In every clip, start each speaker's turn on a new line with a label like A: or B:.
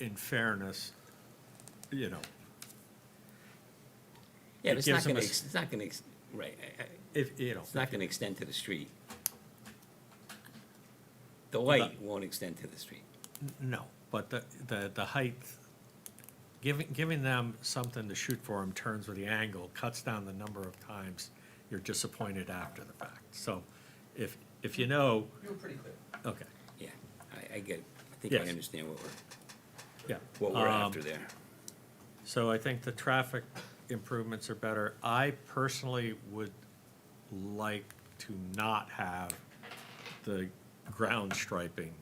A: in fairness, you know,
B: Yeah,
A: It
B: but it's
A: gives
B: not
A: them
B: gonna,
A: a
B: ex- it's not gonna, ex- right, I- I-
A: if, you know,
B: it's not gonna extend to the street. The light won't extend to the street.
A: no, but the, the, the height, giving, giving them something to shoot for in terms of the angle cuts down the number of times you're disappointed after the fact. So if, if you know,
C: You were pretty clear.
A: okay,
B: Yeah, I, I get, it. I think I
A: Yes.
B: understand what we're,
A: yeah.
B: what we're
A: Um,
B: after there.
A: So I think the traffic improvements are better. I personally would like to not have the ground striping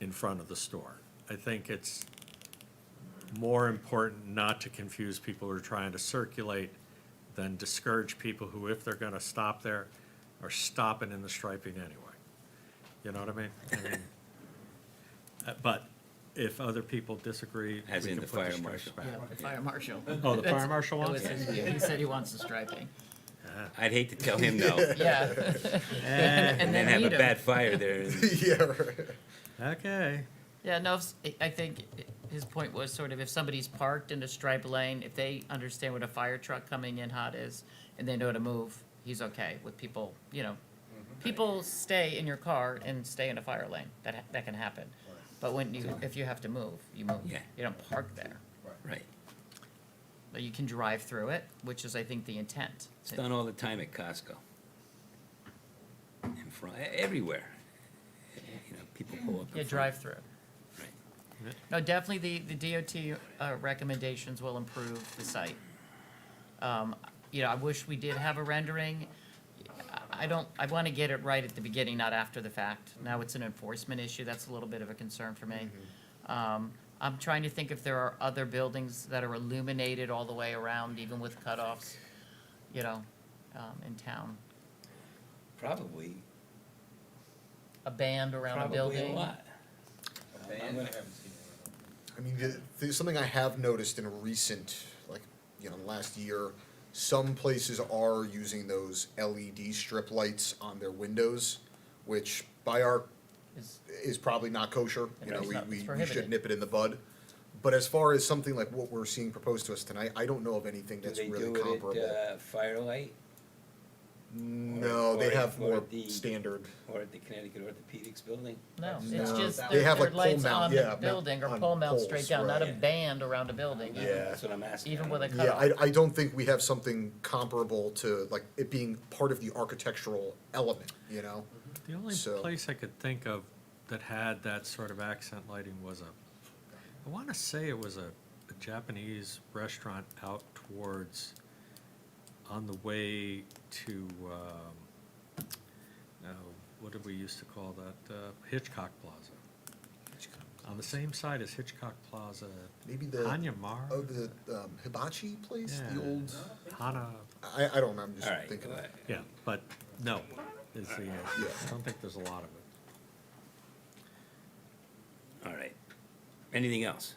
A: in front of the store. I think it's more important not to confuse people who are trying to circulate than discourage people who, if they're gonna stop there, are stopping in the striping anyway. You know what I mean? I mean? uh, But if other people disagree,
B: As
A: we
B: in
A: can
B: the
A: put
B: fire
A: stripes
B: marshal.
A: back.
D: Yeah, the fire marshal.
A: Oh, the fire marshal
D: It
A: wants
D: was
A: it?
D: his view. He said he wants the striping.
B: I'd hate to tell him no,
D: Yeah.
B: and
D: And
B: then have
D: then
B: a
D: meet
B: bad
D: him.
B: fire there. and-
E: yeah, right.
A: Okay.
D: Yeah, no, it's- I- I think his point was sort of if somebody's parked in a stripe lane, if they understand what a fire truck coming in hot is and they know to move, he's okay with people, you know. People stay in your car and stay in a fire lane. That, ha- that can happen. But when you, if you have to move, you move.
B: Yeah.
D: You don't park there.
B: Right.
D: But you can drive through it, which is, I think, the intent.
B: It's done all the time at Costco. In front, e- everywhere. You know, people pull up. in
D: Yeah,
B: front.
D: drive through.
B: Right.
D: No, definitely the, the DOT uh, recommendations will improve the site. Um, You know, I wish we did have a rendering. I- I don't, I want to get it right at the beginning, not after the fact. Now it's an enforcement issue, that's a little bit of a concern for me. Um, I'm trying to think if there are other buildings that are illuminated all the way around, even with cutoffs, you know, um, in town.
B: Probably,
D: A band around a
B: probably a
D: building.
B: lot.
C: A band, I haven't seen one.
E: I mean, the, the, something I have noticed in a recent, like, you know, in the last year, some places are using those LED strip lights on their windows, which by our
D: Is-
E: is probably not kosher. You know,
D: It's
E: we,
D: not-
E: we,
D: it's
E: we should
D: prohibited.
E: nip it in the bud. But as far as something like what we're seeing proposed to us tonight, I don't know of anything
B: Do
E: that's
B: they
E: really
B: do it
E: comparable.
B: at uh, Firelight
E: No,
B: or-
E: they have
B: or
E: more
B: the-
E: standard.
B: or at the Connecticut Orthopedics Building?
D: No,
C: That's
D: it's
E: No.
D: just
E: They
D: their,
E: have,
D: their
E: like, pole
D: lights
E: mount,
D: on
E: yeah,
D: the
E: mount-
D: building or
E: on
D: pole mount
E: poles,
D: straight down, not a
B: right.
D: band around a building.
E: Yeah.
B: That's what I'm asking.
D: Even with a
E: Yeah,
D: cutoff.
E: I, I don't think we have something comparable to like it being part of the architectural element, you know?
D: Mm-hmm.
A: The only
E: So-
A: place I could think of that had that sort of accent lighting was a, I want to say it was a, a Japanese restaurant out towards, on the way to, um, no, what did we used to call that? Uh, Hitchcock Plaza. On the same side as Hitchcock Plaza,
E: Maybe the
A: Hanyamar?
E: oh the um, hibachi place,
A: Yeah.
E: the old.
A: Hana,
E: I, I don't know. I'm just
B: All right.
E: thinking. of
B: well,
A: yeah, but no, is the, uh, answer. I don't think there's a lot of it.
B: All right. Anything else?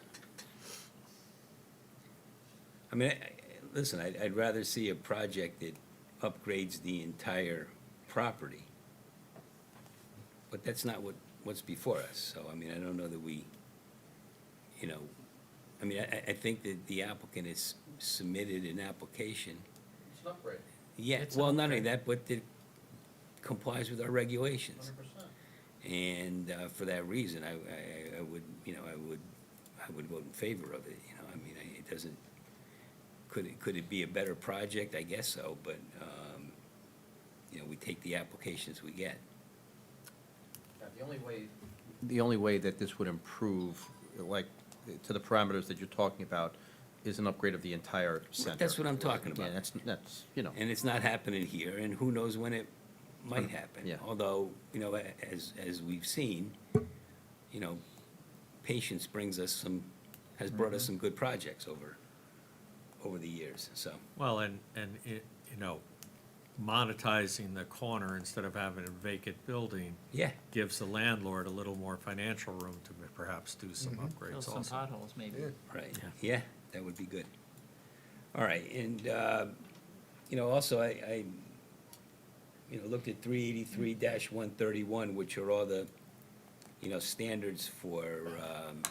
B: I mean, I- I- listen, I'd, I'd rather see a project that upgrades the entire property. But that's not what, what's before us, so I mean, I don't know that we, you know, I mean, I- I, I think that the applicant has submitted an application.
C: It's an upgrade,
B: Yeah,
D: It's
B: well, not only
D: okay.
B: that, but it complies with our regulations.
C: hundred percent.
B: And uh, for that reason, I, I, I would, you know, I would, I would vote in favor of it, you know, I mean, I- it doesn't, could it, could it be a better project? I guess so, but, um, you know, we take the applications we get.
C: Yeah, the only way,
F: the only way that this would improve, like, to the parameters that you're talking about, is an upgrade of the entire center.
B: That's what I'm talking
F: Yeah,
B: about.
F: that's, that's, you know,
B: And it's not happening here, and who knows when it might happen.
F: Yeah.
B: Although, you know, a- as, as we've seen, you know, patience brings us some, has brought us some good projects over, over the years, so.
A: Well, and, and it, you know, monetizing the corner instead of having a vacant building
B: Yeah,
A: gives the landlord a little more financial room to perhaps do some
D: Fill
A: upgrades
D: some
A: also.
D: potholes,
E: it.
D: maybe.
E: Yeah.
B: right,
A: Yeah.
B: yeah, that would be good. All right, and, uh, you know, also, I, I, you know, looked at three eighty-three one thirty-one, which are all the, you know, standards for, um,